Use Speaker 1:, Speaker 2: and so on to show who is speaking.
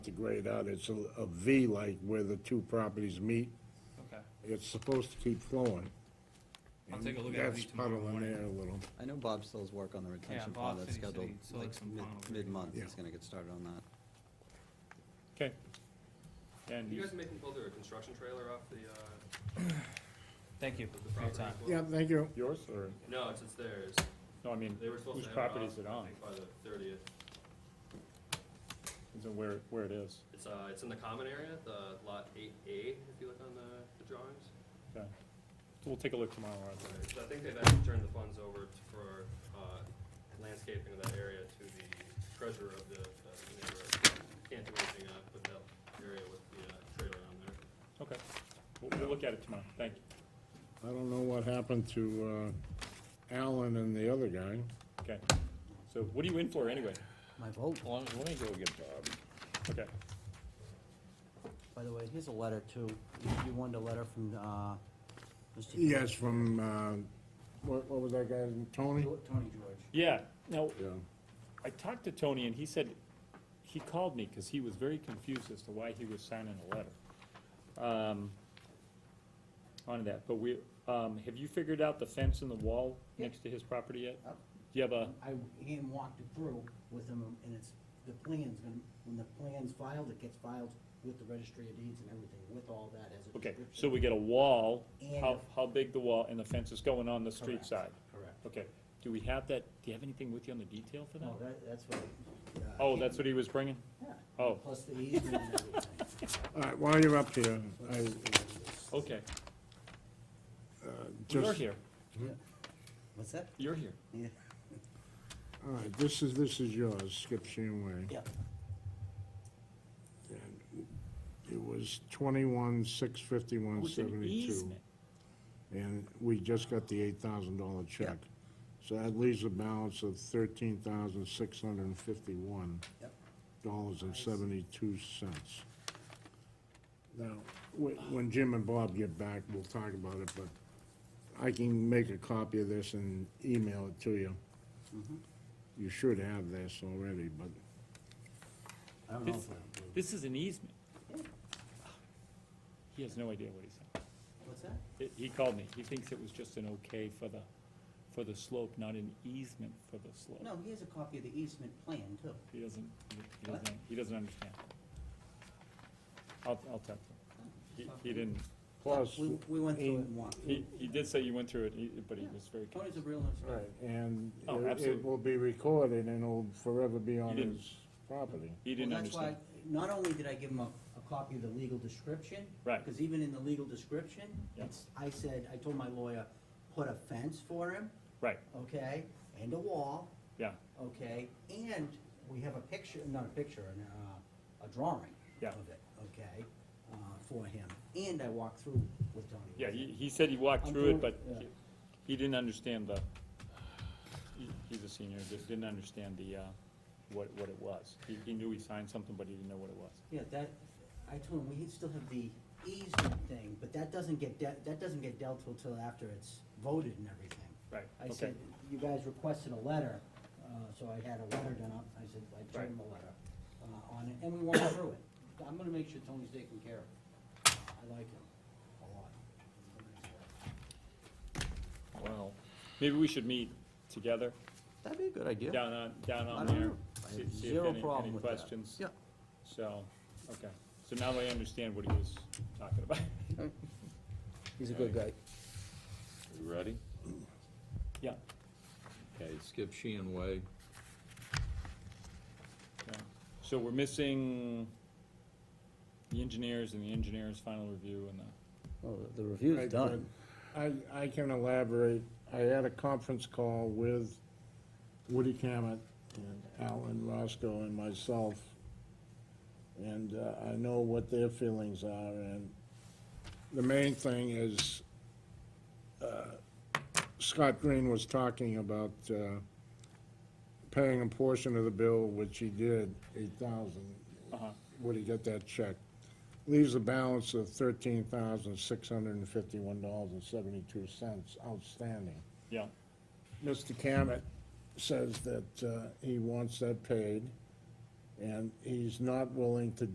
Speaker 1: to grade out, it's a, a V like where the two properties meet.
Speaker 2: Okay,
Speaker 1: It's supposed to keep flowing.
Speaker 2: I'll
Speaker 1: And
Speaker 2: take a look at it
Speaker 1: That's
Speaker 2: tomorrow
Speaker 1: puddling
Speaker 2: morning.
Speaker 1: there a little.
Speaker 3: I know Bob still's work on the retention
Speaker 2: Bob
Speaker 3: pond
Speaker 2: said
Speaker 3: that's
Speaker 2: he said
Speaker 3: scheduled
Speaker 2: he still
Speaker 3: like
Speaker 2: had some
Speaker 3: mid,
Speaker 2: final work.
Speaker 3: mid-month,
Speaker 1: Yeah.
Speaker 3: he's gonna get started on that.
Speaker 4: Okay. And
Speaker 5: You
Speaker 4: you,
Speaker 5: guys making build a construction trailer off the, uh,
Speaker 2: thank you
Speaker 5: of the
Speaker 2: for your
Speaker 5: property?
Speaker 2: time.
Speaker 5: as well?
Speaker 1: Yeah, thank you.
Speaker 4: yours or,
Speaker 5: No, it's, it's theirs.
Speaker 4: no, I mean,
Speaker 5: They were supposed
Speaker 4: whose
Speaker 5: to have uh, it
Speaker 4: property is
Speaker 5: off,
Speaker 4: it
Speaker 5: I
Speaker 4: on?
Speaker 5: think, by the thirtieth.
Speaker 4: Is it where, where it is?
Speaker 5: It's, uh, it's in the common area, the lot eight A, if you look on the, the drawings.
Speaker 4: Okay. So we'll take a look tomorrow, Arthur.
Speaker 5: So I think they've actually turned the funds over t- for, uh, landscaping of that area to the treasurer of the, uh, neighborhood. Can't do anything, uh, with that area with the, uh, trailer on there.
Speaker 4: Okay. We'll, we'll look at it tomorrow. Thank you.
Speaker 1: I don't know what happened to, uh, Alan and the other guy.
Speaker 4: Okay. So what are you in for anyway?
Speaker 3: My vote,
Speaker 6: Well, let me go get Bob.
Speaker 4: Okay.
Speaker 3: by the way, here's a letter too, you you wanted a letter from, uh, Mr.
Speaker 1: Yes, from, uh, what, what was that guy's, name? Tony?
Speaker 3: Tony George.
Speaker 4: Yeah, now,
Speaker 1: Yeah.
Speaker 4: I talked to Tony and he said, he called me because he was very confused as to why he was signing a letter. Um, on that, but we, um, have you figured out the fence and the wall
Speaker 7: Yeah.
Speaker 4: next to his property yet?
Speaker 7: Yep.
Speaker 4: Do you have a,
Speaker 7: I hand walked it through with him, and it's, the plan's gonna, when the plan's filed, it gets filed with the registry of deeds and everything, with all that as a
Speaker 4: okay,
Speaker 7: description.
Speaker 4: so we get a wall,
Speaker 7: And-
Speaker 4: how, how big the wall and the fence is going on the street
Speaker 7: Correct.
Speaker 4: side?
Speaker 7: Correct.
Speaker 4: Okay, do we have that, do you have anything with you on the detail for that?
Speaker 7: No, that, that's what. uh,
Speaker 4: Oh, that's what he was bringing?
Speaker 7: Oh, Yeah.
Speaker 4: Oh.
Speaker 7: Plus the easement and everything.
Speaker 1: All right, while you're up here, I,
Speaker 4: Okay,
Speaker 1: just.
Speaker 4: you're here,
Speaker 7: What's that?
Speaker 4: you're here.
Speaker 7: Yeah.
Speaker 1: All right, this is, this is yours, Skip Sheenway.
Speaker 7: Yep.
Speaker 1: And It was twenty-one, six fifty-one,
Speaker 4: With an
Speaker 1: seventy-two.
Speaker 4: easement.
Speaker 1: And we just got the eight thousand dollar check. So that leaves a balance of thirteen thousand, six hundred and fifty-one
Speaker 7: Yep.
Speaker 1: dollars and seventy-two cents. Now,
Speaker 7: Uh.
Speaker 1: whe- when Jim and Bob get back, we'll talk about it, but I can make a copy of this and email it to you.
Speaker 7: Mm-hmm.
Speaker 1: You should have this already, but
Speaker 7: I don't know
Speaker 4: This,
Speaker 7: if I-
Speaker 4: this is an easement. He has no idea what he's saying.
Speaker 7: What's that?
Speaker 4: He- He called me, he thinks it was just an okay for the, for the slope, not an easement for the slope.
Speaker 7: No, he has a copy of the easement plan, too.
Speaker 4: He doesn't, he doesn't, he doesn't understand. I'll, I'll talk to him. He, he didn't,
Speaker 1: plus.
Speaker 7: We, we went through it and walked.
Speaker 4: he, he did say you went through it, he- but he was very
Speaker 7: Tony's
Speaker 4: confused.
Speaker 7: a real nice guy.
Speaker 1: Right, and
Speaker 4: Oh,
Speaker 1: it- it
Speaker 4: absolutely.
Speaker 1: will be recorded and it'll forever be on
Speaker 4: didn't-
Speaker 1: his property.
Speaker 4: He
Speaker 7: Well,
Speaker 4: didn't
Speaker 7: that's why,
Speaker 4: understand.
Speaker 7: not only did I give him a, a copy of the legal description.
Speaker 4: Right.
Speaker 7: Because even in the legal description,
Speaker 4: Yeah.
Speaker 7: it's, I said, I told my lawyer, put a fence for him,
Speaker 4: Right,
Speaker 7: okay, and a wall,
Speaker 4: yeah,
Speaker 7: okay, and we have a picture, not a picture, an, uh, a drawing
Speaker 4: Yeah.
Speaker 7: of it, okay, uh, for him, and I walked through with Tony.
Speaker 4: yeah, he, he said he walked
Speaker 7: I'm
Speaker 4: through it,
Speaker 7: doing-
Speaker 4: but
Speaker 7: yeah.
Speaker 4: he- he didn't understand the, he- he's a senior, just didn't understand the, uh, what, what it was. He, he knew he signed something, but he didn't know what it was.
Speaker 7: Yeah, that, I told him, we still have the easement thing, but that doesn't get, de- that doesn't get dealt with till after it's voted and everything.
Speaker 4: Right,
Speaker 7: I
Speaker 4: okay.
Speaker 7: said, you guys requested a letter, uh, so I had a letter done up, I said, I
Speaker 4: Right.
Speaker 7: turned him a letter, uh, on it, and we went through it. I'm gonna make sure Tony's taken care of. I like him a lot.
Speaker 4: Well, maybe we should meet together
Speaker 3: That'd be a good idea.
Speaker 4: down on, down
Speaker 3: I
Speaker 4: on
Speaker 3: don't
Speaker 4: there.
Speaker 3: know. I
Speaker 4: see-
Speaker 3: have
Speaker 4: see if
Speaker 3: zero
Speaker 4: any-
Speaker 3: problem
Speaker 4: any
Speaker 3: with that.
Speaker 4: questions.
Speaker 3: Yeah.
Speaker 4: So, okay, so now I understand what he was talking about.
Speaker 3: He's a good guy.
Speaker 6: You ready?
Speaker 4: Yeah,
Speaker 6: Okay, Skip Sheehan Way.
Speaker 4: yeah. So we're missing the engineers and the engineer's final review and the,
Speaker 3: Well, the review's
Speaker 1: Right,
Speaker 3: done.
Speaker 1: I, I can elaborate. I had a conference call with Woody Cammett and Alan Roscoe and myself. And uh, I know what their feelings are and the main thing is, uh, Scott Green was talking about, uh, paying a portion of the bill, which he did, eight thousand.
Speaker 4: uh-huh,
Speaker 1: Would he get that check. Leaves a balance of thirteen thousand, six hundred and fifty-one dollars and seventy-two cents outstanding.
Speaker 4: yeah,
Speaker 1: Mr. Cammett says that, uh, he wants that paid, and he's not willing to